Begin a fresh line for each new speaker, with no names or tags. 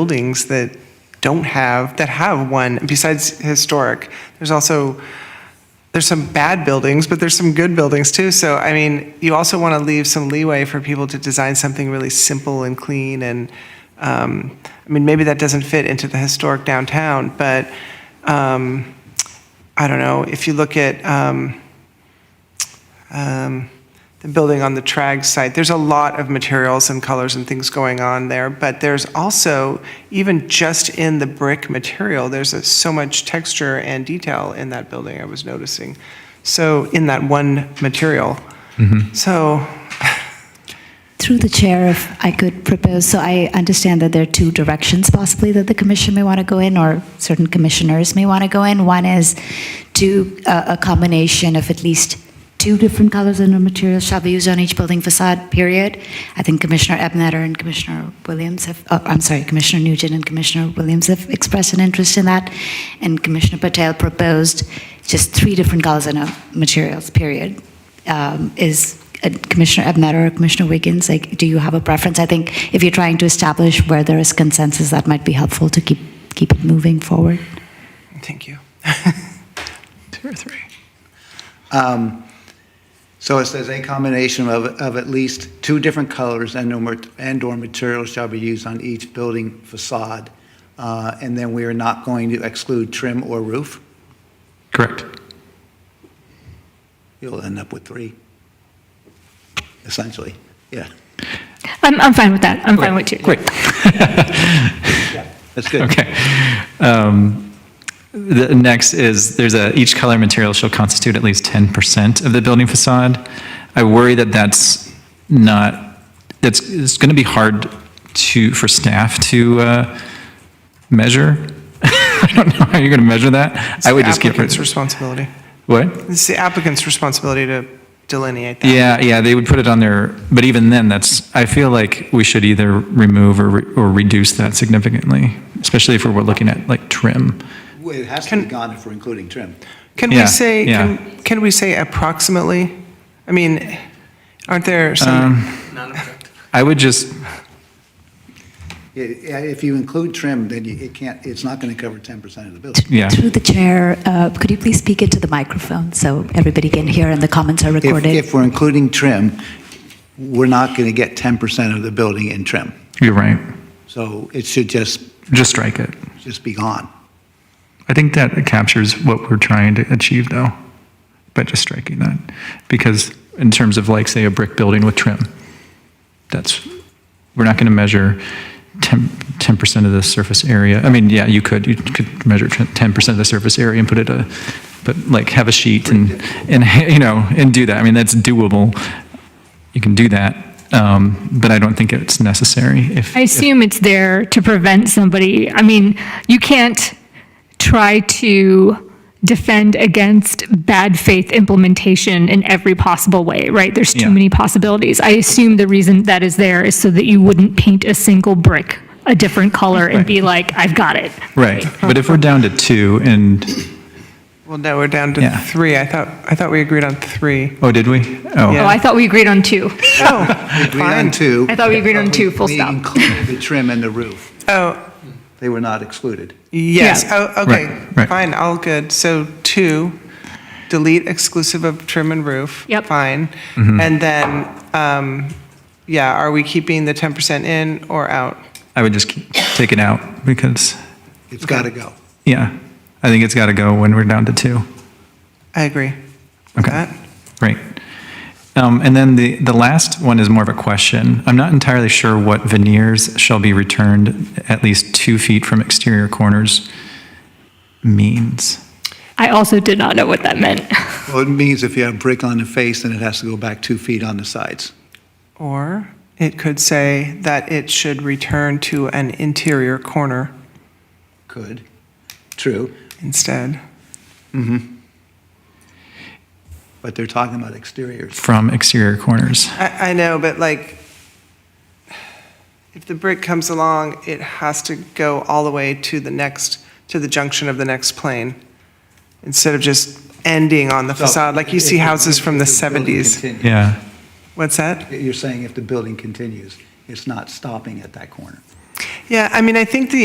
buildings that don't have, that have one, besides historic. There's also, there's some bad buildings, but there's some good buildings too. So, I mean, you also want to leave some leeway for people to design something really simple and clean and, um, I mean, maybe that doesn't fit into the historic downtown, but, um, I don't know, if you look at, um, um, the building on the Trag site. There's a lot of materials and colors and things going on there, but there's also, even just in the brick material, there's a- so much texture and detail in that building I was noticing. So, in that one material.
Mm-hmm.
So,
Through the chair, if I could propose, so I understand that there are two directions possibly that the commission may want to go in, or certain commissioners may want to go in. One is to uh, a combination of at least two different colors and materials shall be used on each building facade, period. I think Commissioner Ebnetter and Commissioner Williams have, oh, I'm sorry, Commissioner Nugent and Commissioner Williams have expressed an interest in that, and Commissioner Patel proposed just three different colors and uh, materials, period um, is uh, Commissioner Ebnetter or Commissioner Wiggins, like, do you have a preference? I think if you're trying to establish where there is consensus, that might be helpful to keep, keep it moving forward.
thank you. Two or three.
Um, So it says a combination of, of at least two different colors and or, mat- and or materials shall be used on each building facade. Uh, And then we are not going to exclude trim or roof.
Correct.
You'll end up with three, essentially. Yeah,
I'm, I'm fine with that. I'm fine with two.
Great.
that's good.
Okay. Um, The next is, there's a, each color material shall constitute at least 10% of the building facade. I worry that that's not, that's, it's going to be hard to, for staff to uh, measure. I don't know how you're going to measure that. I would just give
Applicant's
it,
responsibility.
what?
It's the applicant's responsibility to delineate that.
Yeah, yeah, they would put it on their, but even then, that's, I feel like we should either remove or, re- or reduce that significantly, especially if we're looking at like trim.
Well, It has to be gone if we're including trim.
Can we
Yeah,
say,
yeah.
can, can we say approximately? I mean, aren't there
Uh,
some,
I would just,
Yeah, yeah, If you include trim, then you- it can't, it's not going to cover 10% of the building.
yeah,
Through the chair, uh, could you please speak into the microphone so everybody can hear and the comments are
If,
recorded?
if we're including trim, we're not going to get 10% of the building in trim.
you're right.
So it should just,
Just strike it.
just be gone.
I think that captures what we're trying to achieve though, by just striking that. Because in terms of like, say, a brick building with trim, that's, we're not going to measure 10, 10% of the surface area. I mean, yeah, you could, you could measure tr- 10% of the surface area and put it a, but like have a sheet and, and, you know, and do that. I mean, that's doable. You can do that. Um, but I don't think it's necessary if.
I assume it's there to prevent somebody. I mean, you can't try to defend against bad faith implementation in every possible way, right? There's too
Yeah.
many possibilities. I assume the reason that is there is so that you wouldn't paint a single brick a different color and be like, I've got it.
Right. But if we're down to two and,
well, no, we're down to
Yeah.
three. I thought, I thought we agreed on three.
oh, did we? Oh.
Oh, I thought we agreed on two.
Oh,
Agreed on
fine.
two.
I thought we agreed on
but
two, full
we
stop.
included the trim and the roof.
Oh,
They were not excluded.
yes.
Yeah.
Oh, okay.
Right, right.
Fine, all good. So two, delete exclusive of trim and roof.
Yep.
Fine.
Mm-hmm.
And then, um, yeah, are we keeping the 10% in or out?
I would just keep- take it out because,
It's got to go.
yeah, I think it's got to go when we're down to two.
I agree. with
Okay.
that.
Great. Um, and then the, the last one is more of a question. I'm not entirely sure what veneers shall be returned at least two feet from exterior corners means.
I also did not know what that meant.
Well, it means if you have brick on the face, then it has to go back two feet on the sides.
Or it could say that it should return to an interior corner
Could. True. Mm-hmm.
instead.
But they're talking about exteriors.
From exterior corners.
I, I know, but like, if the brick comes along, it has to go all the way to the next, to the junction of the next plane, instead of just ending on the facade, like you see
If- if-
houses from the
if building
70s.
continues-
Yeah.
What's that?
You're saying if the building continues, it's not stopping at that corner.
Yeah, I mean, I think the